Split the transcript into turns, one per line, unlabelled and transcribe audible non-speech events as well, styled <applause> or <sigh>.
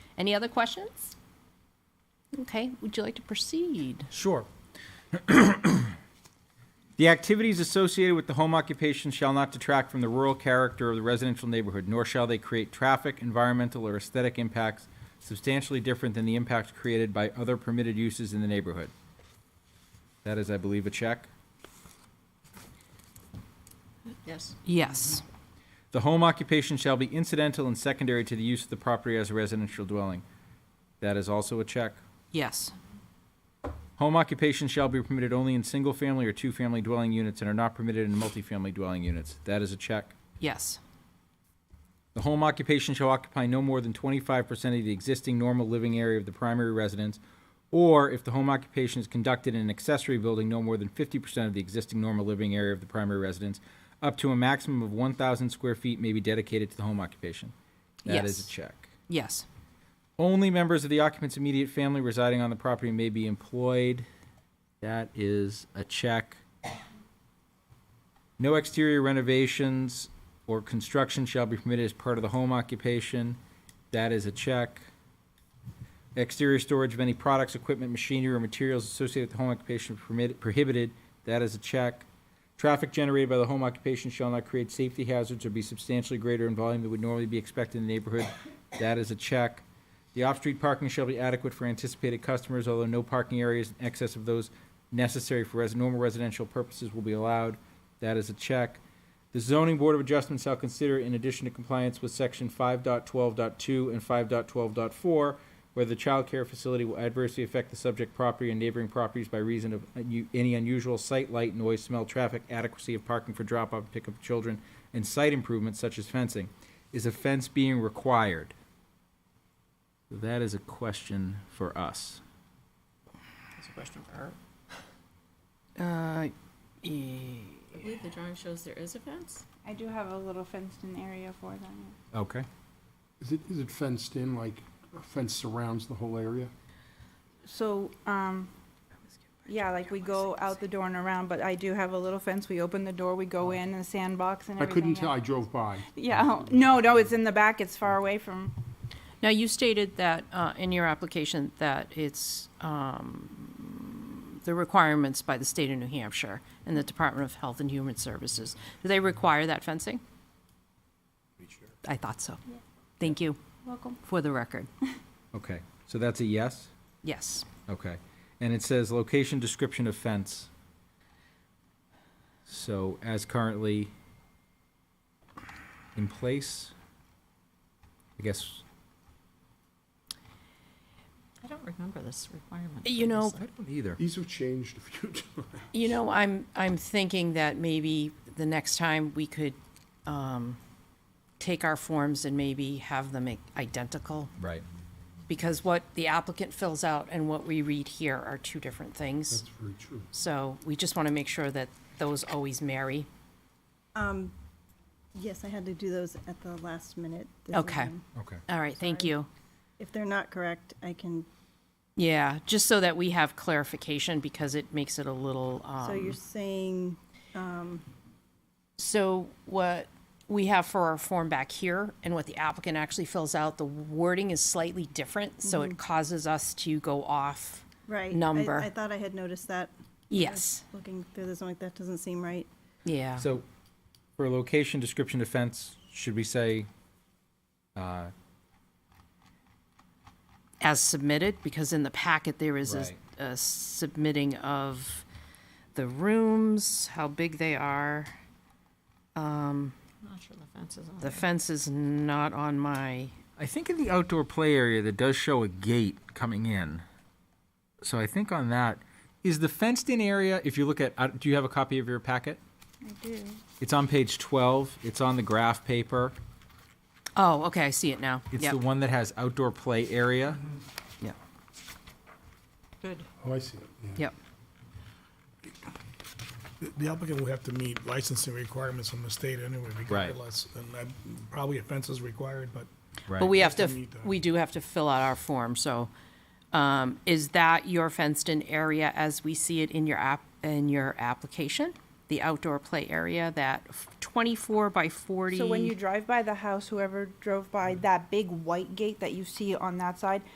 Any other questions? Okay, would you like to proceed?
Sure. <clears throat> The activities associated with the home occupation shall not detract from the rural character of the residential neighborhood, nor shall they create traffic, environmental, or aesthetic impacts substantially different than the impacts created by other permitted uses in the neighborhood. That is, I believe, a check.
Yes.
Yes.
The home occupation shall be incidental and secondary to the use of the property as a residential dwelling. That is also a check.
Yes.
Home occupation shall be permitted only in single-family or two-family dwelling units and are not permitted in multifamily dwelling units. That is a check.
Yes.
The home occupation shall occupy no more than twenty-five percent of the existing normal living area of the primary residence, or if the home occupation is conducted in an accessory building, no more than fifty percent of the existing normal living area of the primary residence, up to a maximum of one thousand square feet may be dedicated to the home occupation. That is a
Yes.
check.
Yes.
Only members of the occupant's immediate family residing on the property may be employed. That is a check. No exterior renovations or construction shall be permitted as part of the home occupation. That is a check. Exterior storage of any products, equipment, machinery, or materials associated with the home occupation permitted, prohibited. That is a check. Traffic generated by the home occupation shall not create safety hazards or be substantially greater in volume than would normally be expected in the neighborhood. That is a check. The off-street parking shall be adequate for anticipated customers, although no parking areas in excess of those necessary for res- normal residential purposes will be allowed. That is a check. The zoning board of adjustment shall consider, in addition to compliance with section 5.12.2 and 5.12.4, whether the child care facility will adversely affect the subject property and neighboring properties by reason of unu- any unusual sight, light, noise, smell, traffic, adequacy of parking for drop-off, and pickup of children, and site improvements such as fencing. Is a fence being required? That is a question for us.
That's a question for her.
Uh, e
I believe the drawing shows there is a fence.
I do have a little fenced-in area for them.
Okay.
Is it, is it fenced in, like a fence surrounds the whole area?
So, um, yeah, like we go out the door and around, but I do have a little fence. We open the door, we go in, and a sandbox and
Oh. I
everything.
couldn't tell,
else.
I drove by.
Yeah, no, no, it's in the back. It's far away from,
now you stated that uh, in your application that it's um, the requirements by the state of New Hampshire and the Department of Health and Human Services. Do they require that fencing? I thought so. Thank you
welcome.
for the record.
Okay. So that's a yes?
Yes.
Okay. And it says location description of fence. So as currently in place, I guess,
I don't remember this requirement.
You know,
previously.
I don't either.
These have changed a few <laughs> times.
You know, I'm, I'm thinking that maybe the next time we could um, take our forms and maybe have them i- identical,
Right.
because what the applicant fills out and what we read here are two different things.
That's very true.
So we just want to make sure that those always marry.
Yes, I had to do those at the last minute. this
Okay.
evening.
Okay.
All right, thank you.
If they're not correct, I can,
Yeah, just so that we have clarification, because it makes it a little,
so
um,
you're saying,
so what we have for our form back here and what the applicant actually fills out, the wording is slightly different, so
Mm-hmm.
it causes us to go off.
right. I-
Number.
I thought I had noticed that,
Yes,
looking through this, I'm like, that doesn't seem right.
yeah.
So for location description of fence, should we say, uh,
As submitted, because in the packet there is a-
Right.
a submitting of the rooms, how big they are.
I'm not sure the fence is on.
The fence is not on my,
I think in the outdoor play area that does show a gate coming in. So I think on that, is the fenced-in area, if you look at, uh, do you have a copy of your packet?
I do.
It's on page 12. It's on the graph paper.
oh, okay, I see it now.
It's
Yep. Mm-hmm.
the one that has outdoor play area.
Yep,
Good.
Oh, I see it, yeah.
yep,
The applicant will have to meet licensing requirements from the state anyway,
Right.
regardless. And that- probably a fence is required, but
but we have to,
Just to meet that.
we do have to fill out our form, so, um, is that your fenced-in area as we see it in your app, in your application? the outdoor play area, that twenty-four by forty.
Mm.
So when you drive by the house, whoever drove by that big white gate that you see on that side,